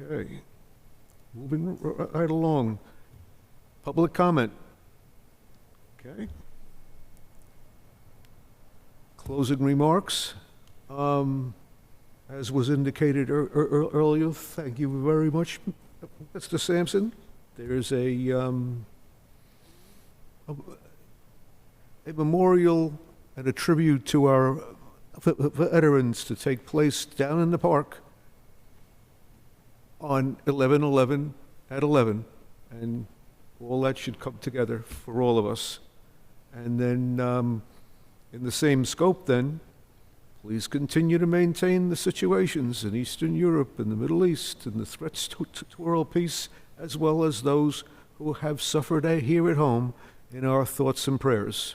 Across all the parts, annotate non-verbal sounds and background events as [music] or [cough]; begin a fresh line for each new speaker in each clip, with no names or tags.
Okay. Moving r- r- right along. Public comment. Okay. Closing remarks. Um, As was indicated ear- ear- ear- earlier, thank you very much, Mr. Sampson. There's a, um, a a memorial and a tribute to our v- v- veterans to take place down in the park on 11/11 at 11, and all that should come together for all of us. And then, um, in the same scope then, please continue to maintain the situations in Eastern Europe and the Middle East and the threats to to- to world peace, as well as those who have suffered a- here at home, in our thoughts and prayers.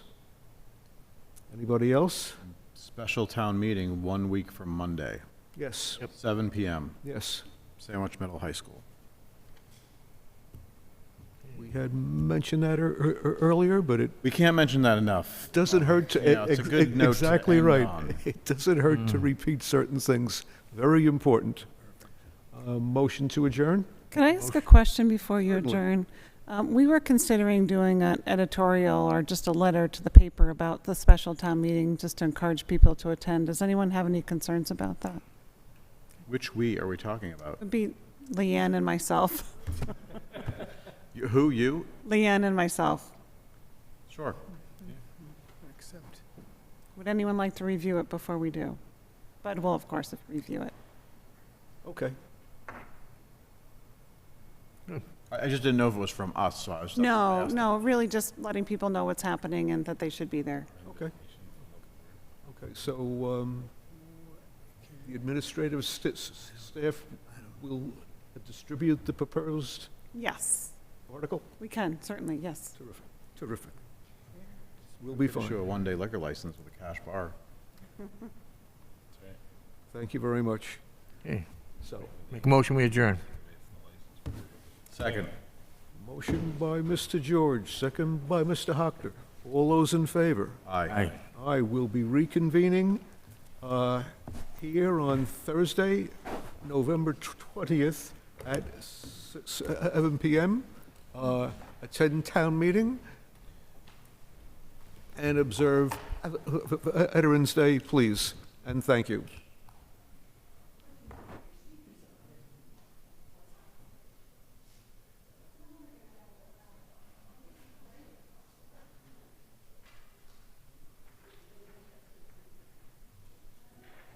Anybody else?
Special town meeting one week from Monday,
Yes,
7 PM,
yes.
Sandwich Middle High School.
We had mentioned that ear- ear- ear- earlier, but it
We can't mention that enough.
Doesn't hurt to,
You know, it's a
ex-
good
ex-
note to
exactly
end
right. [laughs]
on. Hmm.
It doesn't hurt to repeat certain things, very important. Uh, Motion to adjourn?
Can I ask a question before you
Certainly.
adjourn? Um, We were considering doing an editorial or just a letter to the paper about the special town meeting, just to encourage people to attend. Does anyone have any concerns about that?
Which "we" are we talking about?
It'd be Leanne and myself. [laughs]
You- Who, you?
Leanne and myself.
Sure.
Would anyone like to review it before we do? Bud will, of course, review it.
Okay.
I I just didn't know if it was from us, so I was. that's why I
No,
asked.
no, really just letting people know what's happening and that they should be there.
Okay. Okay, so um, the administrative st- s- staff will distribute the proposed
Yes,
article?
we can, certainly, yes.
Terrific, terrific. We'll be
Issue
fine.
a one-day liquor license with a cash bar.
Thank you very much.
Okay.
So,
Make a motion, we adjourn.
Second.
motion by Mr. George, second by Mr. Hockner. All those in favor?
Aye.
I will be reconvening uh, here on Thursday, November 20th at 7 PM. uh, Attend town meeting and observe Veterans Day, please, and thank you.